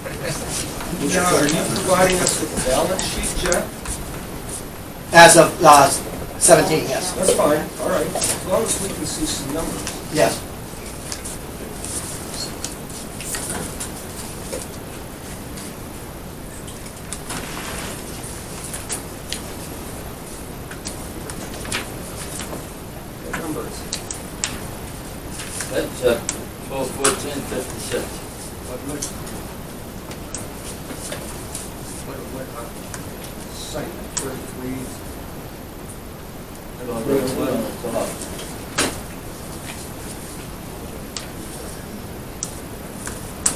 John, are you providing us with a balance sheet, Jeff? As of uh, 17, yes, That's fine, all right, as long as we can see some numbers. yes. What numbers? That's uh, twelve fourteen fifty-six. What, what? What, what, uh, site thirty-three? Twelve fourteen on the top.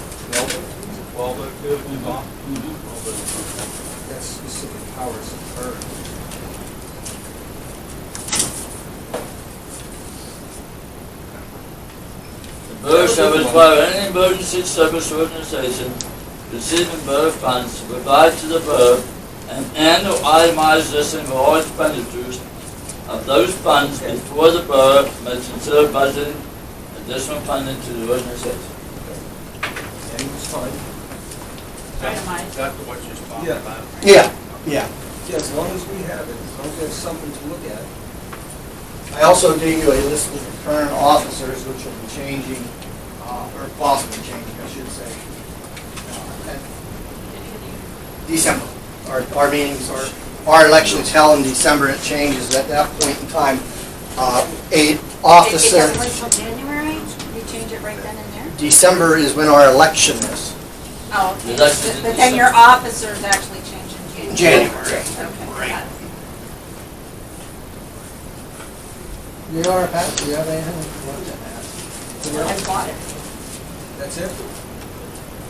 Twelve oh two on the top? Twelve oh two. That's specific powers of burn. The Borough shall require any emergency service organization receiving borough funds to provide to the borough an annual itemized listing of all expenditures of those funds before the borough may consider budgeting additional funding to the organization. And it's fine. Itemized. Is that what you're talking Yeah. about? Yeah, yeah. Yeah, as long as we have it, as long as we have something to look at. I also gave you a list of the current officers, which will be changing, uh, or possibly changing, I should say. uh, at December. Our, our meetings are, our elections held in December, it changes at that point in time. Uh, A It officer, doesn't wait till January? You change it right then and there? December is when our election is. Oh, Yeah, okay. that's in But but then your December. officers actually change in January. January. Okay, got it. You are, Pat, do you have anything you want to add? I bought it. That's it?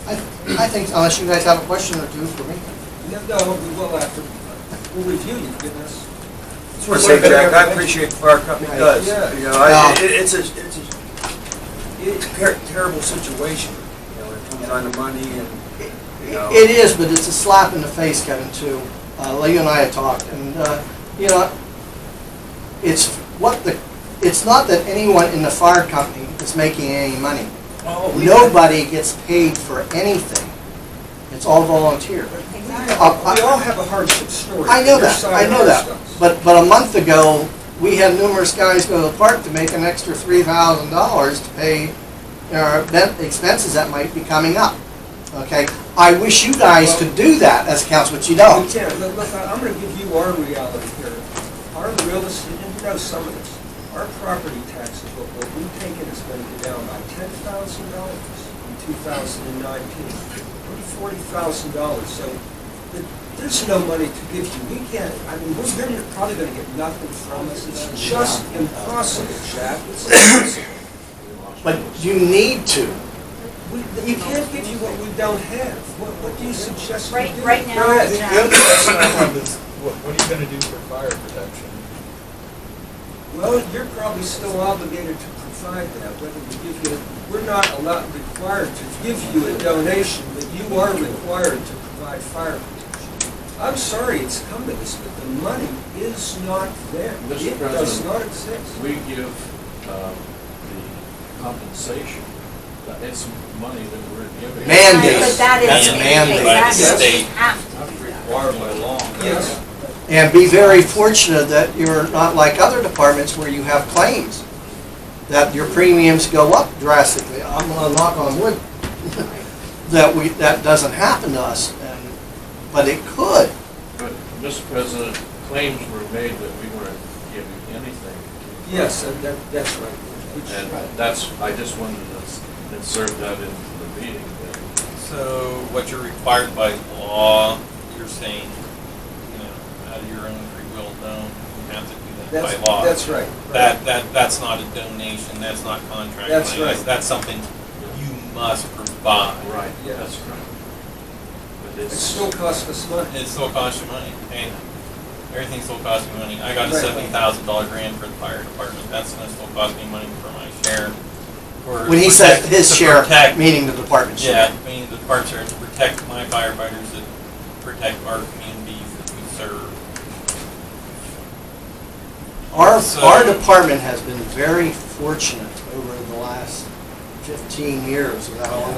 I, I think, unless you guys have a question or two for me. No, no, we will after, uh, we'll review you, goodness. I just want to say, Jack, I appreciate what our company does. You know, I- it- it's a, it's a, it's a ter- terrible situation, you know, it comes down to money and, you know. It is, but it's a slap in the face, Kevin, too. Uh, Lee and I have talked, and, uh, you know, it's what the, it's not that anyone in the fire company is making any money. Oh, Nobody gets paid for anything. It's all volunteer. Uh, We all I have a hardship story. I know Your that, side I of know our that. stuff. But, but a month ago, we had numerous guys go to the park to make an extra three thousand dollars to pay our event expenses that might be coming up. Okay? I wish you guys could do that as council, but you We don't. can't, look, look, I'm gonna give you our reality here. Our real estate, and you know some of this, our property taxes, what what we've taken has been down by ten thousand dollars in two thousand and nineteen. Forty thousand dollars, so th- there's no money to give you. We can't, I mean, we're, they're probably gonna get nothing from us. It's just impossible, Jack. It's impossible. But you need to. We- You can't give you what we don't have. What, what do you suggest we Right- do? right now, Go ahead. Jack. The other question I have is, what, what are you gonna do for fire protection? Well, you're probably still obligated to provide that, whether we give you, we're not allowed, required to give you a donation, but you are required to provide fire protection. I'm sorry it's come to this, but the money is not there. Mr. It does President. not exist. We give uh, the compensation, that it's money that we're giving. Man- Mandate. But that That's is. a mandate. Exactly. State. You have to do that. Required by law. Yes, And be very fortunate that you're not like other departments where you have claims, that your premiums go up drastically. I'm gonna knock on wood, that we, that doesn't happen to us, and, but it could. But, Mr. President, claims were made that we weren't giving anything. yes, and that, that's right. Which- And that's, I just wanted to s- insert that into the meeting. that- So what you're required by law, you're saying, you know, out of your own free will, no, you have to do that That's, by law. that's right. That, that, that's not a donation, that's not contract. That's money, right. That's something you must provide. Right, Yeah. that's right. But It it's, still costs us money. It still costs you money, and everything still costs me money. I got a Right. seventy thousand dollar grant for the fire department, that's gonna still cost me money for my share. for- When he said protect- his to share, protect- meaning the department share. Yeah, I mean, the parts are to protect my firefighters, to protect our communities that we serve. Our, So- our department has been very fortunate over the last fifteen years, without all